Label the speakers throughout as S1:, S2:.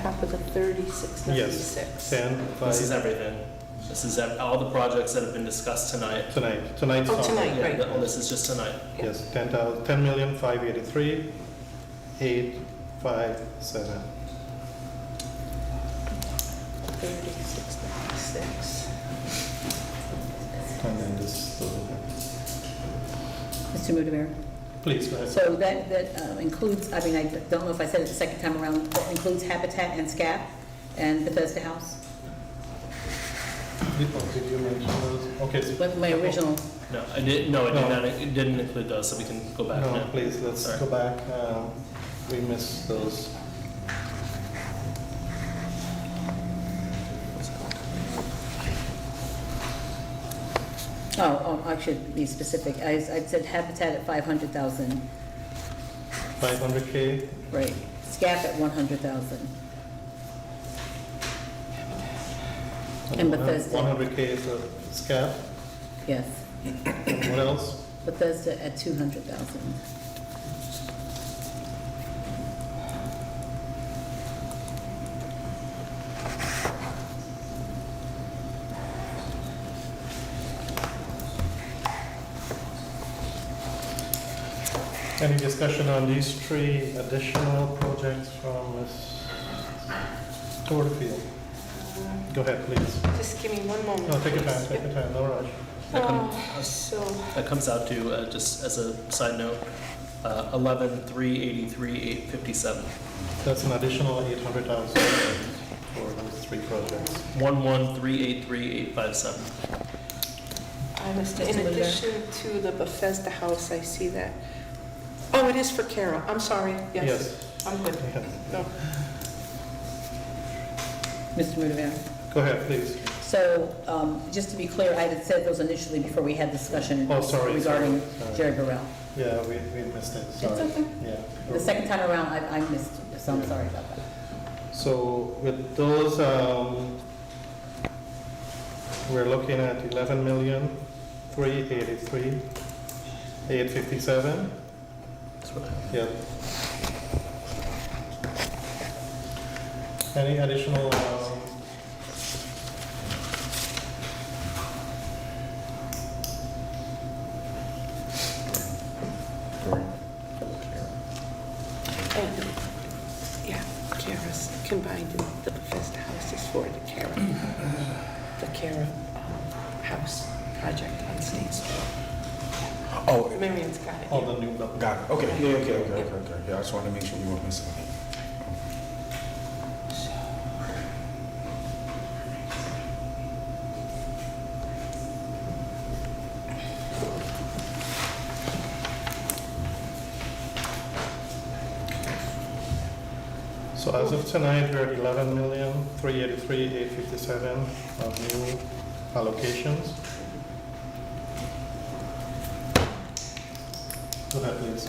S1: top of the thirty-six
S2: Yes,
S1: ninety-six.
S2: 10 by
S3: This is everything. This is ev- all the projects that have been discussed tonight.
S2: tonight, tonight's
S1: Oh,
S2: number.
S1: tonight.
S3: Yeah,
S1: Right.
S3: th- this is just tonight.
S2: Yes, 10,000, 10,583, 857.
S1: Thirty-six ninety-six.
S2: And then this, uh,
S4: Mr. Mudavera?
S2: please, go ahead.
S4: So that, that uh, includes, I mean, I don't know if I said it the second time around, that includes Habitat and SCAP and Bethesda House?
S2: Oh, Did did you mention those? Okay, so-
S4: What my original,
S3: No, I did, no, it
S2: No.
S3: did not, it didn't include those, so we can go back
S2: no,
S3: now.
S2: please, let's
S3: Sorry.
S2: go back. um, We missed those.
S4: oh, oh, I should be specific. I, I said Habitat at 500,000,
S2: 500K,
S4: right. SCAP at 100,000. And Bethesda.
S2: 100K is a scap.
S4: Yes.
S2: And What else?
S4: Bethesda at 200,000.
S2: Any discussion on these three additional projects from Ms. Porterfield? Go ahead, please.
S1: Just give me one moment.
S2: No, take your time,
S1: please.
S2: take your time, no rush.
S3: That come-
S1: Uh, So,
S3: That comes out to, uh, just as a side note, uh, 11,383,857.
S2: That's an additional 800,000 for those three projects.
S3: 11383,857.
S1: I missed it.
S4: Mr.
S1: in
S4: Mulder.
S1: addition to the Bethesda house, I see that. Oh, it is for Carol, I'm sorry, yes. I'm good.
S2: Yes.
S1: No.
S4: Mr. Mudavera?
S2: Go ahead, please.
S4: So, um, just to be clear, I had said those initially before we had discussion
S2: Oh, sorry, sorry,
S4: regarding
S2: sorry.
S4: Jerry Burrell.
S2: Yeah, we, we missed it,
S4: It's
S2: sorry.
S4: okay.
S2: Yeah.
S4: The second time around, I, I missed, it, so I'm sorry about that.
S2: So with those, um, we're looking at eleven million, three eighty-three, eight fifty-seven.
S3: That's what I have.
S2: Yep. Any additional, um,
S1: And, yeah, Kara's combined, the Bethesda house is for the Kara, the Kara um, House project on State Street.
S5: Oh,
S1: Marion's got it.
S2: all the new, bu-
S5: got it. Okay, yeah, okay, okay, okay, okay. Yeah, I just wanted to make sure we weren't missing anything.
S2: so as of tonight, we're at eleven million, three eighty-three, eight fifty-seven of new allocations. Go ahead, please.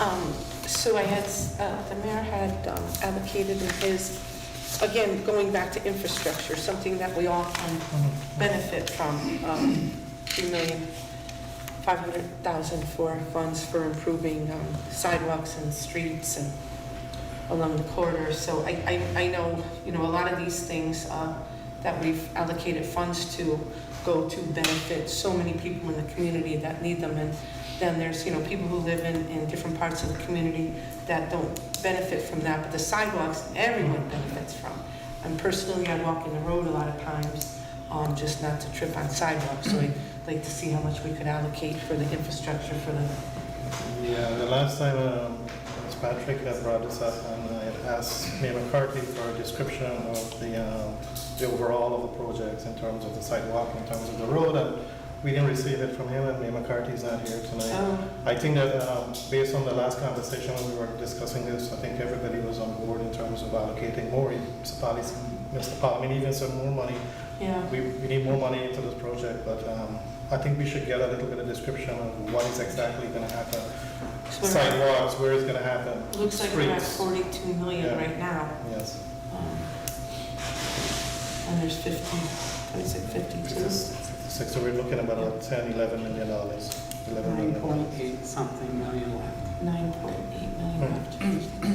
S1: Um, So I had, uh, the mayor had um, allocated in his, again, going back to infrastructure, something that we all can benefit from, um, 2500000 for funds for improving um, sidewalks and streets and along the corridor. So I, I, I know, you know, a lot of these things uh, that we've allocated funds to go to benefit so many people in the community that need them. And then there's, you know, people who live in, in different parts of the community that don't benefit from that, but the sidewalks, everyone benefits from. And personally, I walk in the road a lot of times, um, just not to trip on sidewalks. So I'd like to see how much we could allocate for the infrastructure for the,
S2: Yeah, the last time um, it was Patrick that brought this up, and I had asked Mayor McCarthy for a description of the, um, the overall of the projects in terms of the sidewalk, in terms of the road, and we didn't receive it from him, and Mayor McCarthy's not here tonight.
S1: um,
S2: I think that um, based on the last conversation when we were discussing this, I think everybody was on board in terms of allocating more municipalities, Mr. Paul, I mean, even some more money
S1: yeah.
S2: we, we need more money into this project, but um, I think we should get a little bit of description of what is exactly gonna happen.
S1: So we're-
S2: Sidewalks, where it's gonna happen,
S1: Looks like we're at
S2: Streets.
S1: 42 million
S2: Yeah.
S1: right now.
S2: yes.
S1: Um, And there's 50, what is it, 52?
S2: Six, so we're looking at about ten, eleven million dollars, eleven
S6: Nine
S2: million.
S6: point eight something million left.
S1: 9.8 million
S2: Hmm.
S1: left.